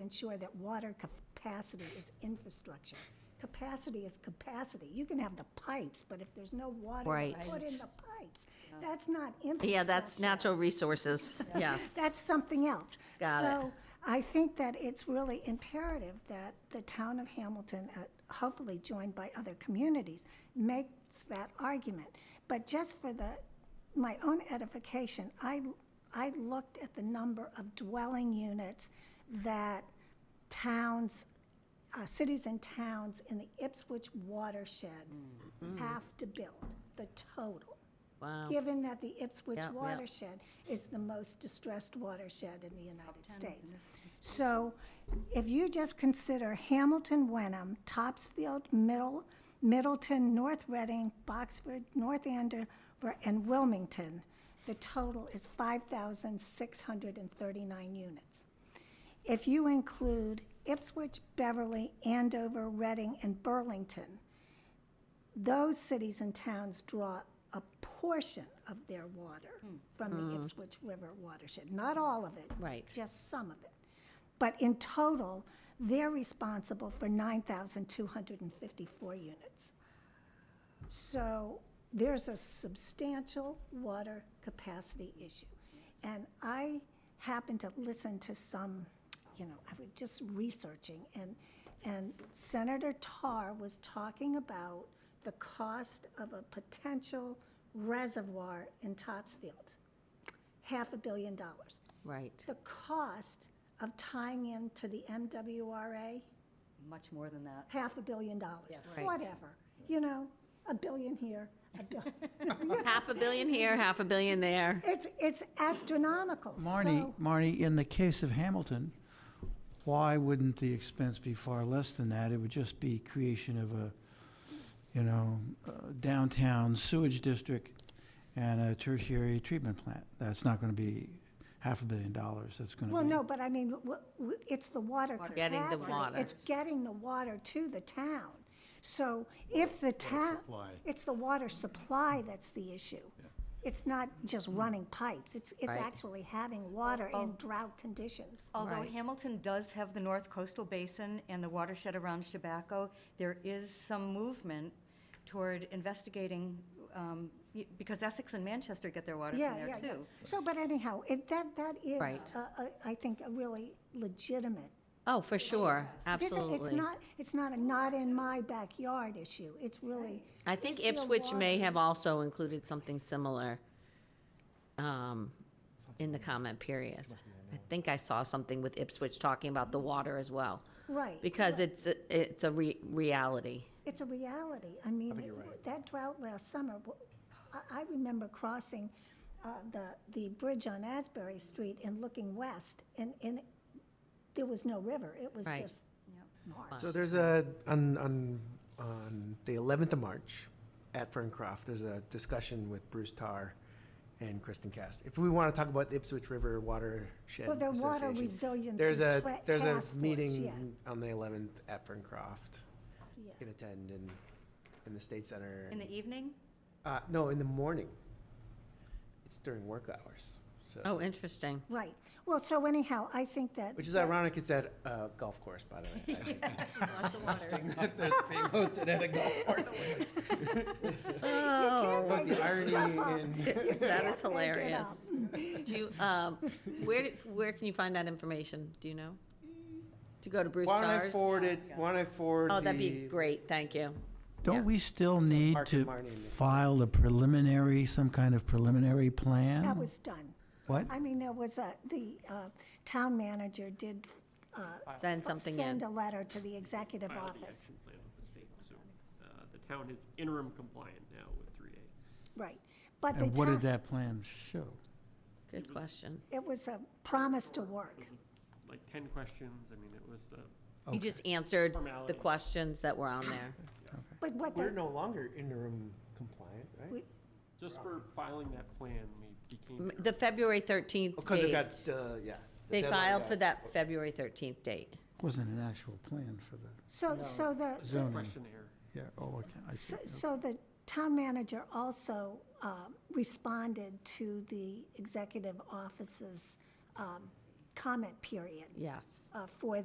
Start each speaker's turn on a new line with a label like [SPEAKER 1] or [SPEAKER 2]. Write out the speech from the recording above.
[SPEAKER 1] ensure that water capacity is infrastructure. Capacity is capacity. You can have the pipes, but if there's no water to
[SPEAKER 2] Right.
[SPEAKER 1] put in the pipes, that's not infrastructure.
[SPEAKER 2] Yeah, that's natural resources, yes.
[SPEAKER 1] That's something else.
[SPEAKER 2] Got it.
[SPEAKER 1] So I think that it's really imperative that the town of Hamilton, uh, hopefully joined by other communities, makes that argument. But just for the, my own edification, I, I looked at the number of dwelling units that towns, uh, cities and towns in the Ipswich watershed
[SPEAKER 2] Mm-hmm.
[SPEAKER 1] have to build, the total
[SPEAKER 2] Wow,
[SPEAKER 1] given that the Ipswich
[SPEAKER 2] Yeah, yeah.
[SPEAKER 1] watershed is the most distressed watershed in the United States. So if you just consider Hamilton, Wenham, Topsfield, Middle, Middleton, North Reading, Boxford, North Andover, and Wilmington, the total is 5,639 units. If you include Ipswich, Beverly, Andover, Reading, and Burlington, those cities and towns draw a portion of their water from the Ipswich River watershed, not all of it.
[SPEAKER 2] Right.
[SPEAKER 1] Just some of it. But in total, they're responsible for 9,254 units. So there's a substantial water capacity issue. And I happened to listen to some, you know, I was just researching, and, and Senator Tarr was talking about the cost of a potential reservoir in Topsfield, half a billion dollars.
[SPEAKER 2] right.
[SPEAKER 1] The cost of tying in to the MWRA,
[SPEAKER 3] Much more than that.
[SPEAKER 1] half a billion dollars,
[SPEAKER 2] Right.
[SPEAKER 1] whatever, you know, a billion here, a billion.
[SPEAKER 2] Half a billion here, half a billion there.
[SPEAKER 1] It's, it's astronomical,
[SPEAKER 4] Marnie,
[SPEAKER 1] so,
[SPEAKER 4] Marnie, in the case of Hamilton, why wouldn't the expense be far less than that? It would just be creation of a, you know, uh, downtown sewage district and a tertiary treatment plant. That's not gonna be half a billion dollars, that's gonna be.
[SPEAKER 1] well, no, but I mean, w- w- it's the water capacity.
[SPEAKER 2] Getting the water.
[SPEAKER 1] It's getting the water to the town. So if the town, it's the water supply that's the issue. It's not just running pipes, it's, it's
[SPEAKER 2] Right.
[SPEAKER 1] actually having water in drought conditions.
[SPEAKER 3] Although
[SPEAKER 2] Right.
[SPEAKER 3] Hamilton does have the North Coastal Basin and the watershed around Chabaco, there is some movement toward investigating, um, y- because Essex and Manchester get their water
[SPEAKER 1] Yeah,
[SPEAKER 3] from
[SPEAKER 1] yeah,
[SPEAKER 3] there
[SPEAKER 1] yeah.
[SPEAKER 3] too.
[SPEAKER 1] So, but anyhow, it, that, that is,
[SPEAKER 2] Right.
[SPEAKER 1] uh, uh, I think, a really legitimate
[SPEAKER 2] Oh, for sure,
[SPEAKER 1] It isn't-
[SPEAKER 2] absolutely.
[SPEAKER 1] It's not, it's not a not in my backyard issue. It's really.
[SPEAKER 2] I think
[SPEAKER 1] is there
[SPEAKER 2] Ipswich may
[SPEAKER 1] water-
[SPEAKER 2] have also included something similar um, in the comment period. I think I saw something with Ipswich talking about the water as well,
[SPEAKER 1] Right.
[SPEAKER 2] because it's, a- it's a re- reality.
[SPEAKER 1] It's a reality. I mean, it- that drought last summer, w- I, I remember crossing uh, the, the bridge on Asbury Street and looking west and, and there was no river. It was
[SPEAKER 2] Right.
[SPEAKER 1] just marsh.
[SPEAKER 5] So there's a, on, on, on the 11th of March at Ferncroft, there's a discussion with Bruce Tarr and Kristen Cast. If we want to talk about the Ipswich River Watershed
[SPEAKER 1] Well, the Water
[SPEAKER 5] Association,
[SPEAKER 1] Resiliency
[SPEAKER 5] there's a,
[SPEAKER 1] Tra-
[SPEAKER 5] there's a
[SPEAKER 1] Task Force, yeah,
[SPEAKER 5] meeting on the 11th at Ferncroft.
[SPEAKER 1] yeah.
[SPEAKER 5] You can attend in, in the State Center.
[SPEAKER 3] In the evening?
[SPEAKER 5] Uh, no, in the morning. It's during work hours, so,
[SPEAKER 2] Oh, interesting.
[SPEAKER 1] Right. Well, so anyhow, I think that.
[SPEAKER 5] which is
[SPEAKER 1] that-
[SPEAKER 5] ironic, it's at a golf course, by the way. I think
[SPEAKER 3] Lots of water.
[SPEAKER 5] It's being hosted at a golf course.
[SPEAKER 1] You can't
[SPEAKER 2] Oh,
[SPEAKER 1] make
[SPEAKER 5] The
[SPEAKER 1] this stuff up.
[SPEAKER 5] irony in.
[SPEAKER 2] that is
[SPEAKER 1] Can't make it up.
[SPEAKER 2] hilarious. Do you, um, where, where can you find that information? Do you know? To go to Bruce
[SPEAKER 5] Why don't I
[SPEAKER 2] Tars?
[SPEAKER 5] forward it, why don't I forward the?
[SPEAKER 2] Oh, that'd be great, thank you.
[SPEAKER 4] Don't we still need
[SPEAKER 5] Mark and
[SPEAKER 4] to
[SPEAKER 5] Marnie and the-
[SPEAKER 4] file a preliminary, some kind of preliminary plan?
[SPEAKER 1] That was done.
[SPEAKER 4] What?
[SPEAKER 1] I mean, there was a, the uh, town manager did uh,
[SPEAKER 2] Send something in.
[SPEAKER 1] send a letter to the executive
[SPEAKER 6] filed the
[SPEAKER 1] office.
[SPEAKER 6] action plan with the state, so uh, the town is interim compliant now with three A.
[SPEAKER 1] Right. But the
[SPEAKER 4] And what did
[SPEAKER 1] town,
[SPEAKER 4] that plan show?
[SPEAKER 2] Good question.
[SPEAKER 1] it was a promise to work.
[SPEAKER 6] Like ten questions, I mean, it was, uh,
[SPEAKER 2] You just answered the
[SPEAKER 6] Formality.
[SPEAKER 2] questions that were on there.
[SPEAKER 1] But what,
[SPEAKER 5] We're
[SPEAKER 1] the-
[SPEAKER 5] no longer interim compliant, right?
[SPEAKER 1] We-
[SPEAKER 6] just for filing that plan, we became.
[SPEAKER 2] M- The February 13th
[SPEAKER 5] Because it got,
[SPEAKER 2] date,
[SPEAKER 5] uh, yeah. the
[SPEAKER 2] they
[SPEAKER 5] deadline
[SPEAKER 2] filed
[SPEAKER 5] got-
[SPEAKER 2] for that February 13th date.
[SPEAKER 4] Wasn't an actual plan for the,
[SPEAKER 1] so, so the,
[SPEAKER 6] It's a
[SPEAKER 4] Zoning.
[SPEAKER 6] questionnaire.
[SPEAKER 4] yeah, oh, okay, I see.
[SPEAKER 1] so- so the town manager also um, responded to the executive office's um, comment period
[SPEAKER 2] Yes.
[SPEAKER 1] uh, for